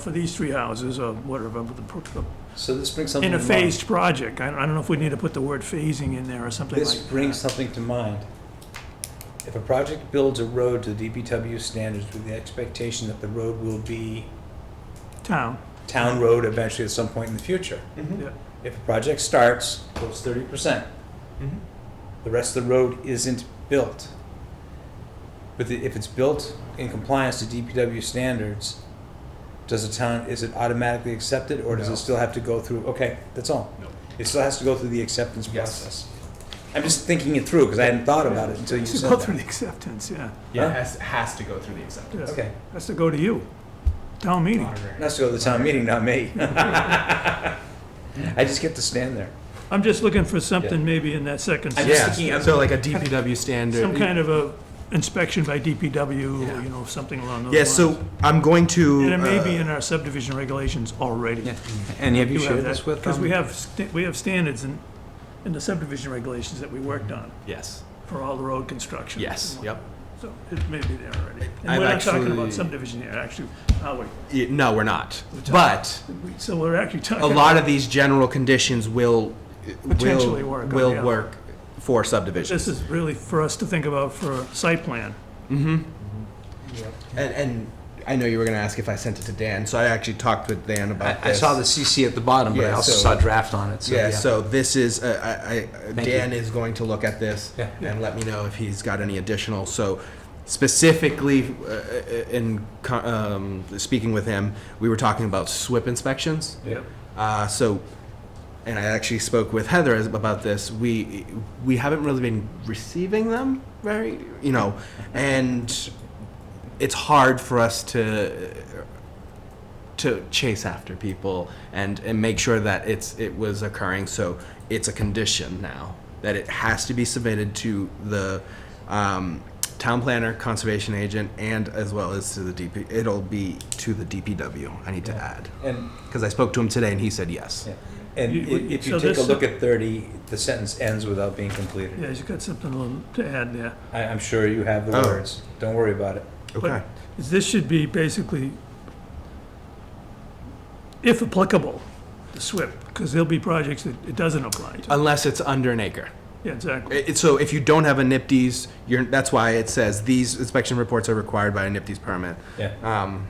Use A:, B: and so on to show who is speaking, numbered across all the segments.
A: for these three houses or whatever, but the pro-
B: So this brings something
A: in a
B: to
A: phased project. I I don't know if we need to put the word phasing in there or
B: mind.
A: something like
B: This
A: that.
B: brings something to mind. If a project builds a road to DPW standards with the expectation that the road will be
A: Town,
B: town road eventually at some point in the future.
A: yeah.
B: If a project starts, goes thirty percent,
A: Mm-hmm.
B: the rest of the road isn't built. But the- if it's built in compliance to DPW standards, does the town, is it automatically accepted or does
C: No.
B: it still have to go through, okay, that's all?
C: No.
B: It still has to go through the acceptance
C: Yes.
B: process. I'm just thinking it through because I hadn't thought about it until you
A: It's
B: said
A: go through
B: that.
A: the acceptance, yeah.
C: It
B: Yeah,
C: has, has to go through the acceptance.
A: yeah.
B: okay.
A: Has to go to you, town meeting.
C: Auditor.
B: It has to go to the town meeting, not me. I just get to stand there.
A: I'm just looking for something maybe in that second,
B: I'm just thinking
C: Yeah,
B: of-
C: so like a DPW standard.
A: some kind of a inspection by DPW,
C: Yeah.
A: or you know, something along those
C: Yeah,
A: lines.
C: so I'm going to.
A: And it may be
C: uh,
A: in our subdivision regulations already.
B: And have
A: Do
B: you
A: have
B: shared
A: that,
B: this with um, them?
A: Because we have, sta- we have standards in, in the subdivision regulations that we worked on
C: Yes,
A: for all the road construction.
C: yes, yep.
A: So it may be there already. And
C: I've
A: we're not talking
C: actually-
A: about subdivision here, actually, are we?
C: Y- No, we're not. But
A: We- So we're actually talking.
C: a lot of these general conditions will,
A: Potentially
C: will,
A: work on, yeah.
C: will work for subdivisions.
A: This is really for us to think about for a site plan.
C: Mm-hmm. And, and I know you were gonna ask if I sent it to Dan, so I actually talked with Dan about
B: I, I
C: this.
B: saw the CC at the bottom, but I
C: Yeah,
B: also
C: so-
B: saw draft on it, so
C: Yeah,
B: yeah.
C: so this is, uh, I, I,
B: Thank
C: Dan
B: you.
C: is going to look at this
B: Yeah.
C: and let me know if he's got any additional, so specifically, uh, in, co- um, speaking with him, we were talking about SWIP inspections.
B: Yep.
C: Uh, so, and I actually spoke with Heather as- about this. We we haven't really been receiving them very, you know, and it's hard for us to to chase after people and and make sure that it's it was occurring. So it's a condition now that it has to be submitted to the um, town planner, conservation agent, and as well as to the DP. It'll be to the DPW. I need to add.
B: And,
C: Because I spoke to him today and he said yes.
B: yeah. and
A: You-
B: i- if
A: so
B: you take a
A: this-
B: look at thirty, the sentence ends without being
A: Yeah,
B: completed.
A: you've got something a little to add there.
B: I, I'm sure you have the
C: Oh.
B: words, don't worry about it.
C: Okay.
A: is This should be basically, if applicable, the SWIP, because there'll be projects that it doesn't apply to.
C: Unless it's under an acre.
A: Yeah, exactly.
C: It- it- so if you don't have a NIPD's, you're, that's why it says these inspection reports are required by a NIPD's permit.
B: Yeah,
C: Um,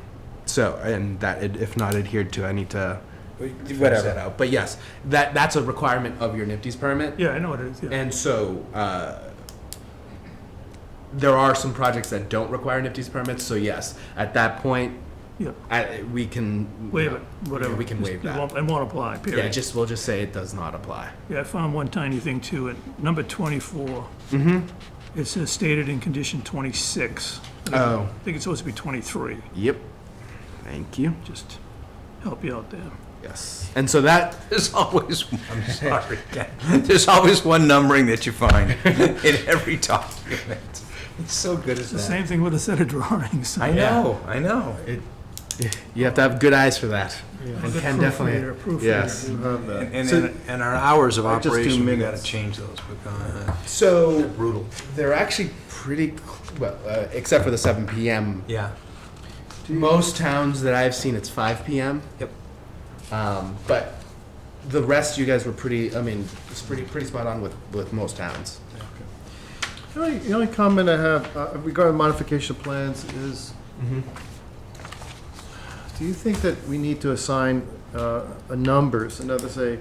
C: so, and that it- if not adhered to, I need to figure that
B: whatever.
C: out. But yes, that, that's a requirement of your NIPD's permit.
A: Yeah, I know what it is, yeah.
C: And so, uh, there are some projects that don't require NIPD's permits, so yes, at that point,
A: Yeah.
C: I, we can.
A: Waive it, whatever.
C: We can
A: Just-
C: waive
A: it
C: that.
A: won't- It won't apply,
C: Yeah,
A: period.
C: just, we'll just say it does not apply.
A: Yeah, I found one tiny thing too, at number 24.
B: Mm-hmm.
A: It says stated in condition 26.
C: Oh.
A: I think it's supposed to be 23,
C: Yep. Thank you.
A: just help you out there.
C: Yes. And so that
B: There's always, I'm sorry, there's always one numbering that you find in every document. It's so good at
A: The
B: that.
A: same thing with a set of drawings.
B: I know, I know.
C: you have to have good eyes for that.
A: A
C: And
A: good
C: can
A: proofreader,
C: definitely.
A: proofreader.
C: Yes.
B: And, and-
C: So-
B: and, and our hours of
C: Just do
B: operation, we gotta
C: minutes.
B: change those, because
C: So
B: brutal.
C: they're actually pretty cl- well, uh, except for the 7 p.m.
B: Yeah.
C: Most towns that I've seen, it's 5 p.m.
B: Yep.
C: Um, but the rest, you guys were pretty. I mean, it's pretty pretty spot on with with most towns.
D: The only, the only comment I have uh, regarding modification plans is, do you think that we need to assign uh, a numbers, another say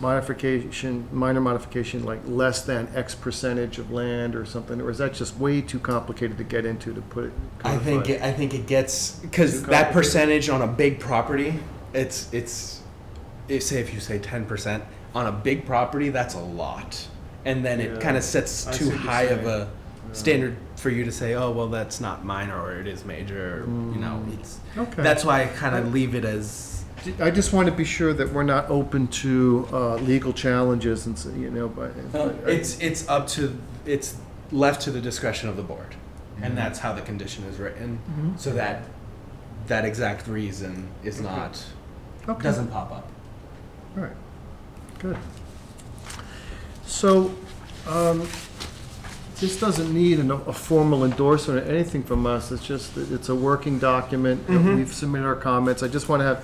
D: modification, minor modification, like less than X percentage of land or something, or is that just way too complicated to get into to put it?
C: I think
D: codified?
C: it, I think it gets because
D: Too
C: that
D: complicated.
C: percentage on a big property, it's it's if say if you say ten percent on a big property, that's a lot, and then it
D: Yeah.
C: kind of sets
D: I see
C: too
D: what you're
C: high of
D: saying.
C: a standard for you to say, oh well, that's not minor or it is major, or, you know. It's
D: Mm. Okay.
C: that's why I kind of leave it as
D: I just want to be sure that we're not open to uh, legal challenges and, so- you know, by.
B: No,
C: it's it's up to it's left to the discretion of the board,
D: Mm-hmm.
C: and that's how the condition is written, so that that exact reason is not
D: Okay.
C: doesn't pop up.
D: All right, good. So, um, This doesn't need an- a formal endorsement or anything from us, it's just, that it's a working document, and we've submitted our comments, I just want to have